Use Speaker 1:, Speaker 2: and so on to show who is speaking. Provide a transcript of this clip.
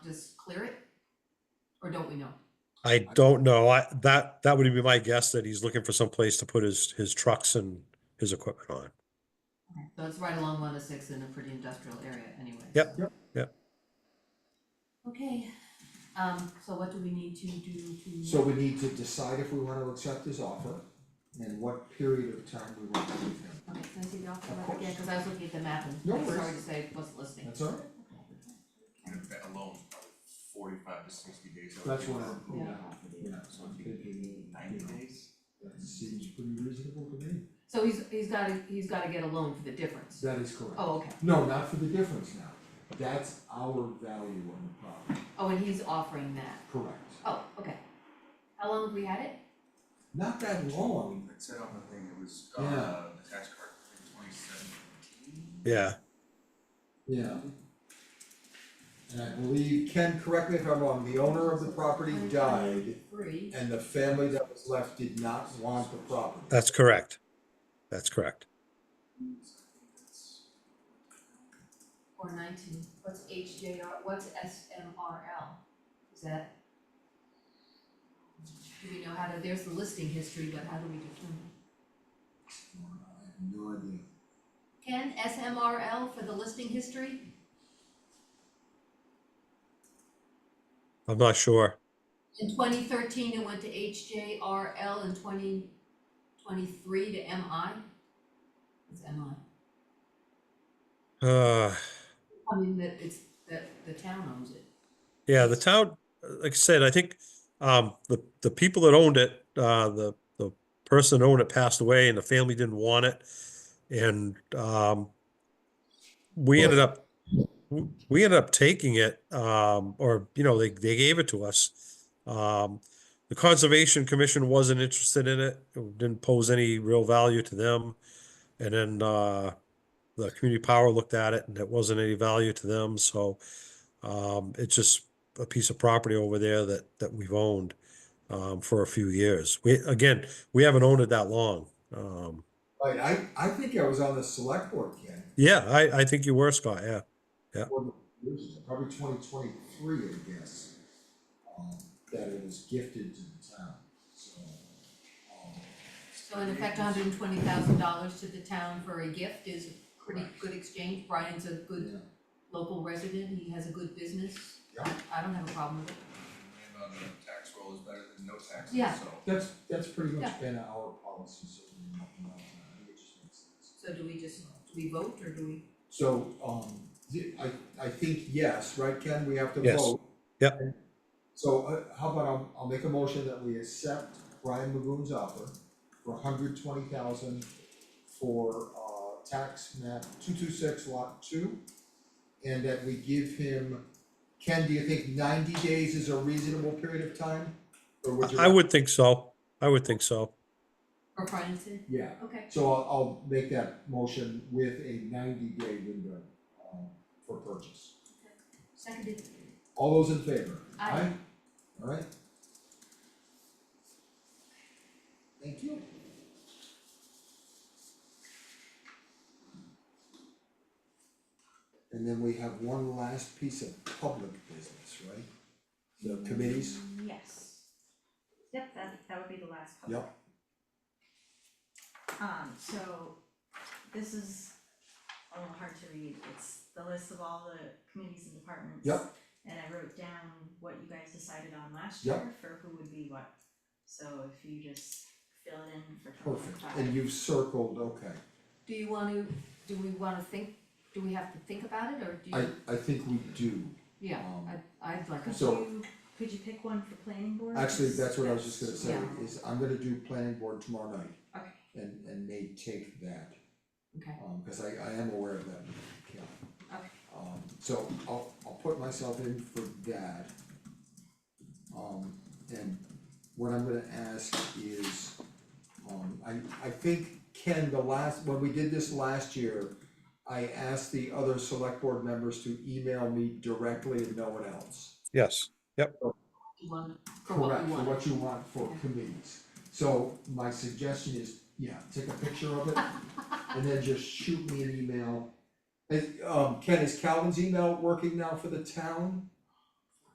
Speaker 1: or don't we know?
Speaker 2: I don't know. I, that, that would be my guess that he's looking for some place to put his, his trucks and his equipment on.
Speaker 1: So it's right along one oh six in a pretty industrial area anyway.
Speaker 2: Yep,
Speaker 1: so-
Speaker 2: yep.
Speaker 1: Okay, um, so what do we need to do to?
Speaker 3: So we need to decide if we wanna accept his offer and what period of time we want to give him.
Speaker 1: Okay, can I see the offer
Speaker 3: Of
Speaker 1: letter
Speaker 3: course.
Speaker 1: again, cause I was looking at the map and
Speaker 3: No
Speaker 1: I'm sorry
Speaker 3: worries.
Speaker 1: to say, wasn't listening.
Speaker 3: That's all right?
Speaker 4: And if that alone, is probably forty-five to sixty days. I would
Speaker 3: That's
Speaker 4: think,
Speaker 3: what
Speaker 4: for
Speaker 3: I'm,
Speaker 4: approval.
Speaker 3: yeah, yeah,
Speaker 4: So if you could do ninety days,
Speaker 3: that seems pretty reasonable to me.
Speaker 1: So he's, he's gotta, he's gotta get a loan for the difference.
Speaker 3: That is correct.
Speaker 1: Oh, okay,
Speaker 3: No, not for the difference now. That's our value on the property,
Speaker 1: oh, and he's offering that,
Speaker 3: correct.
Speaker 1: oh, okay. How long have we had it?
Speaker 3: Not that long,
Speaker 4: it said on the thing, it was, uh,
Speaker 3: Yeah.
Speaker 4: the tax card, like twenty-seven.
Speaker 2: Yeah,
Speaker 3: yeah. And I believe, Ken, correct me if I'm wrong, the owner of the property died
Speaker 1: Free,
Speaker 3: and the family that was left did not want the property.
Speaker 2: that's correct. That's correct.
Speaker 1: or nineteen, what's HJR, what's SMRL? Is that? Do we know how to, there's the listing history, but how do we determine?
Speaker 3: I have no idea.
Speaker 1: Ken, SMRL for the listing history?
Speaker 2: I'm not sure.
Speaker 1: In twenty thirteen, it went to HJRL, in twenty twenty-three to MI? It's MI,
Speaker 2: Uh,
Speaker 1: I mean, that it's, that the town owns it.
Speaker 2: yeah, the town, like I said, I think, um, the, the people that owned it, uh, the, the person that owned it passed away and the family didn't want it. And, um, we ended up, w- we ended up taking it, um, or, you know, they, they gave it to us. Um, the Conservation Commission wasn't interested in it, it didn't pose any real value to them. And then, uh, the Community Power looked at it and it wasn't any value to them, so, um, it's just a piece of property over there that, that we've owned, um, for a few years. We, again, we haven't owned it that long. Um,
Speaker 3: Right, I, I think I was on the select board, Ken,
Speaker 2: yeah, I, I think you were, Scott, yeah.
Speaker 3: or the- it was probably twenty twenty-three, I guess, um, that it was gifted to the town, so. um,
Speaker 1: So in effect, hundred and twenty thousand dollars to the town for a gift is a pretty good exchange, Brian's a good
Speaker 3: yeah.
Speaker 1: local resident, he has a good business.
Speaker 3: Yeah.
Speaker 1: I don't have a problem with it.
Speaker 4: And on the tax roll is better than no taxes, so.
Speaker 1: Yeah.
Speaker 3: That's, that's pretty
Speaker 1: Yeah.
Speaker 3: much been our policy, so we have nothing else, I think it just makes sense.
Speaker 1: So do we just, do we vote or do we?
Speaker 3: So, um, the- I, I think yes, right, Ken, we have to vote.
Speaker 2: Yes. Yep.
Speaker 3: And So, uh, how about I'll, I'll make a motion that we accept Brian Magoon's offer for hundred twenty thousand for, uh, tax map two-two-six lot two. And that we give him, Ken, do you think ninety days is a reasonable period of time? Or would you?
Speaker 2: I would think so. I would think so.
Speaker 1: Or Brian said,
Speaker 3: Yeah,
Speaker 1: okay,
Speaker 3: So I'll, I'll make that motion with a ninety day window, um, for purchase.
Speaker 1: seconded,
Speaker 3: All those in favor?
Speaker 1: Aye.
Speaker 3: Alright. Thank you. And then we have one last piece of public business, right? The committees,
Speaker 5: Yes. Yep, that, that would be the last couple.
Speaker 3: yep,
Speaker 5: Um, so this is a little hard to read. It's the list of all the committees and departments.
Speaker 3: Yep.
Speaker 5: And I wrote down what you guys decided on last
Speaker 3: Yep.
Speaker 5: year for who would be what. So if you just fill it in for twenty
Speaker 3: perfect,
Speaker 5: twenty-five.
Speaker 3: and you've circled, okay.
Speaker 1: do you wanna, do we wanna think, do we have to think about it or do
Speaker 3: I,
Speaker 1: you?
Speaker 3: I think we do,
Speaker 1: Yeah,
Speaker 3: um,
Speaker 1: I, I'd like,
Speaker 5: Could
Speaker 1: a-
Speaker 3: so-
Speaker 5: you, could you pick one for planning board?
Speaker 3: Actually, that's what I was just gonna say,
Speaker 1: Yeah.
Speaker 3: is I'm gonna do planning board tomorrow night
Speaker 5: Okay,
Speaker 3: and and may take that,
Speaker 1: okay,
Speaker 3: um, cause I I am aware of that, yeah.
Speaker 5: okay.
Speaker 3: Um, so I'll I'll put myself in for that. Um, and what I'm gonna ask is, um, I I think Ken, the last, when we did this last year, I asked the other select board members to email me directly and no one else.
Speaker 2: Yes.
Speaker 1: you want, for what
Speaker 3: Correct,
Speaker 1: we
Speaker 3: for
Speaker 1: want.
Speaker 3: what you want for committees. So my suggestion is, yeah, take a picture of it and then just shoot me an email. Is, um, Ken, is Calvin's email working now for the town?